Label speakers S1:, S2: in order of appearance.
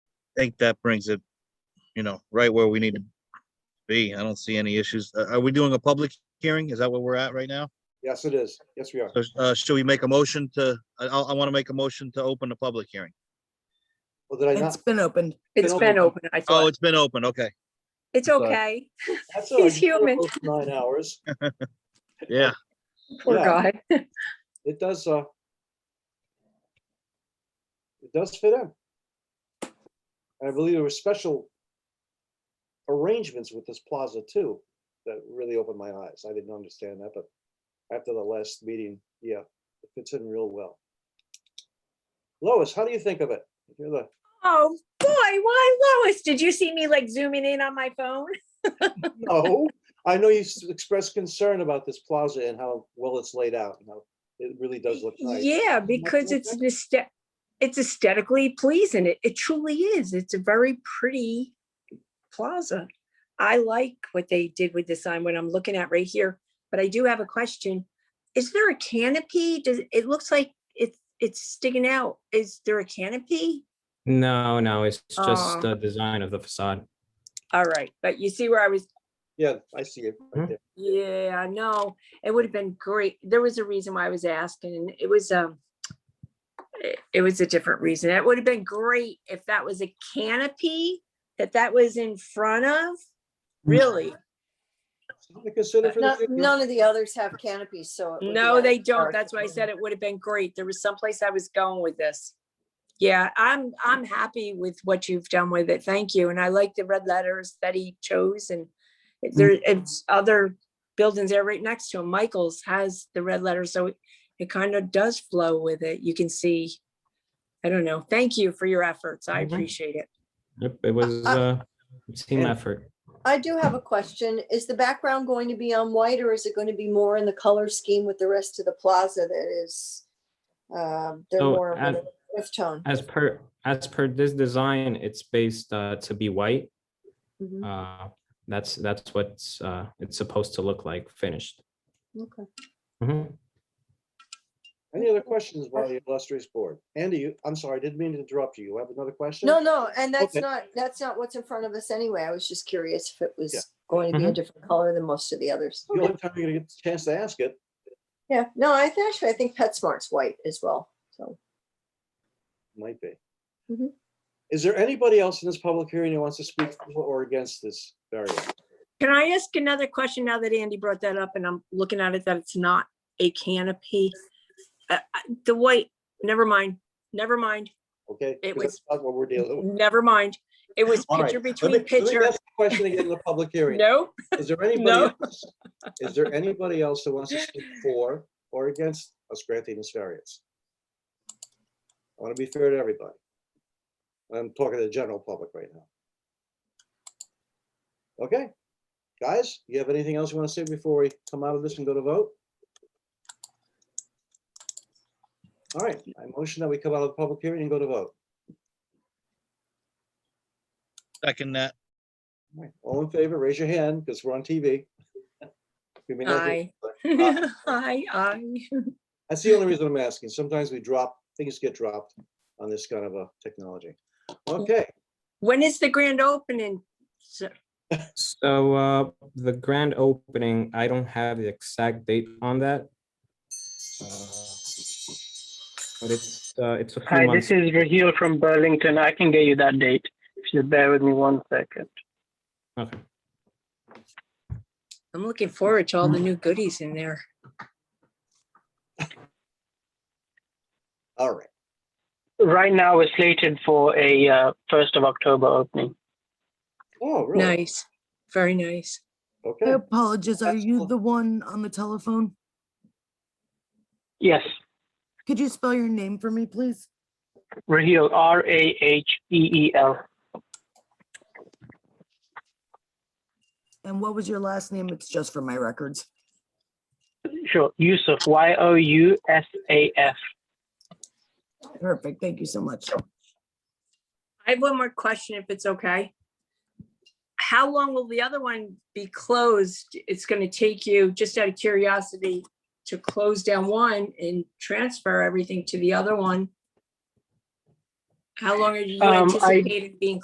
S1: think that brings it, you know, right where we need to be. I don't see any issues. Uh, Are we doing a public hearing? Is that where we're at right now?
S2: Yes, it is. Yes, we are.
S1: So, Uh, should we make a motion to, I, I, I want to make a motion to open the public hearing.
S2: Well, did I
S3: It's
S2: not?
S3: been opened.
S4: It's been
S2: open.
S4: open, I
S1: Oh,
S4: thought.
S1: it's been open. Okay.
S4: It's
S2: sorry.
S4: okay,
S2: That's all right.
S4: he's
S2: You can
S4: human.
S2: go for Nine hours.
S1: Yeah.
S4: poor
S2: Yeah,
S4: guy.
S2: It does, uh, it does fit in. And I believe there were special arrangements with this plaza too, that really opened my eyes. I didn't understand that, but after the last meeting, yeah, it fits in real well. Lois, how do you think of it? You're the,
S4: Oh, boy, why Lois, did you see me like zooming in on my phone?
S2: No, I know you s- expressed concern about this plaza and how well it's laid out, and how it really does look nice.
S4: Yeah, because
S2: look
S4: it's an aesthet- it's aesthetically pleasing. It, it truly is. It's a very pretty plaza. I like what they did with the sign when I'm looking at right here, but I do have a question. Is there a canopy? Does, it looks like it's, it's sticking out. Is there a canopy?
S5: No, no, it's just
S4: Oh.
S5: the design of the facade.
S4: All right, but you see where I was
S2: Yeah, I see it right
S5: Mhm.
S2: there.
S4: Yeah, I know. It would have been great. There was a reason why I was asking. and It was um it- it was a different reason. It would have been great if that was a canopy that that was in front of. Really?
S2: Something to
S4: Uh,
S2: consider for the
S6: No-
S2: future.
S6: None of the others have canopies, so. it would be
S4: No,
S6: like-
S4: they don't. That's why I said it would have been great. There was someplace I was going with this. Yeah, I'm I'm happy with what you've done with it. Thank you. And I like the red letters that he chose and it- there
S6: Mm.
S4: it's other buildings there right next to him. Michael's has the red letters, so it- it kind of does flow with it. You can see. I don't know. Thank you for your efforts. I
S5: Mhm.
S4: appreciate it.
S5: Yep, it was uh, a team
S2: And-
S5: effort.
S6: I do have a question. Is the background going to be on white or is it going to be more in the color scheme with the rest of the plaza that is? um, They're
S5: So,
S6: more of
S5: as-
S6: an earth tone.
S5: As per, as per this design, it's based uh, to be white.
S6: Mhm,
S5: Uh, That's, that's what's, uh, it's supposed to look like finished.
S6: okay.
S5: Mhm.
S2: Any other questions by the illustrious board? Andy, you, I'm sorry, I didn't mean to interrupt you. You have another question?
S6: No, no, and that's
S2: Okay.
S6: not, that's not what's in front of us anyway. I was just curious if it was going to be a
S5: Mhm.
S6: different color than most of the others.
S2: The only time you're gonna get the chance to ask it.
S6: Yeah, no, I th- actually, I think PetSmart's white as well, so.
S2: Might be.
S4: Mm-hmm.
S6: Mhm.
S2: Is there anybody else in this public hearing who wants to speak for or against this variant?
S4: Can I ask another question now that Andy brought that up and I'm looking at it that it's not a canopy? Uh, uh, The white, never mind, never mind.
S2: Okay?
S4: It
S2: 'Cause
S4: was-
S2: that's not What we're dealing with.
S4: Never mind. It was
S2: All right,
S4: picture
S2: let me-
S4: between
S2: let me
S4: picture.
S2: ask the Question again in the public hearing.
S4: No,
S2: Is there anybody, else? is there anybody else that wants to speak for or against us granting this variance? I want to be fair to everybody. I'm talking to the general public right now. Okay, guys, you have anything else you want to say before we come out of this and go to vote? All right, I motion that we come out of the public hearing and go to vote.
S1: Second that.
S2: All right, All in favor, raise your hand because we're on TV. We may not be-
S4: aye. Aye, aye.
S2: That's the only reason I'm asking. Sometimes we drop, things get dropped on this kind of a technology. Okay,
S4: When is the grand opening? So-
S5: So uh, the grand opening, I don't have the exact date on that. Uh, But it's, uh, it's a few
S7: Hi, this
S5: months.
S7: is Raheel from Burlington. I can get you that date. If you bear with me one second.
S5: Okay.
S4: I'm looking forward to all the new goodies in there.
S2: all right.
S7: Right now, we're slated for a uh, 1st of October opening.
S2: Oh, really?
S4: Nice, very nice.
S3: I
S2: Okay.
S3: apologize. Are
S2: That's
S3: you
S2: cool.
S3: the one on the telephone?
S7: Yes,
S3: Could you spell your name for me, please?
S7: Raheel, R A H E E L.
S3: And what was your last name? It's just for my records.
S7: Sure, Yusuf, Y O U S A F.
S3: Perfect. Thank you so much.
S4: I have one more question if it's okay. How long will the other one be closed? It's gonna take you, just out of curiosity, to close down one and transfer everything to the other one? How long are you
S7: Um, I-
S4: anticipating being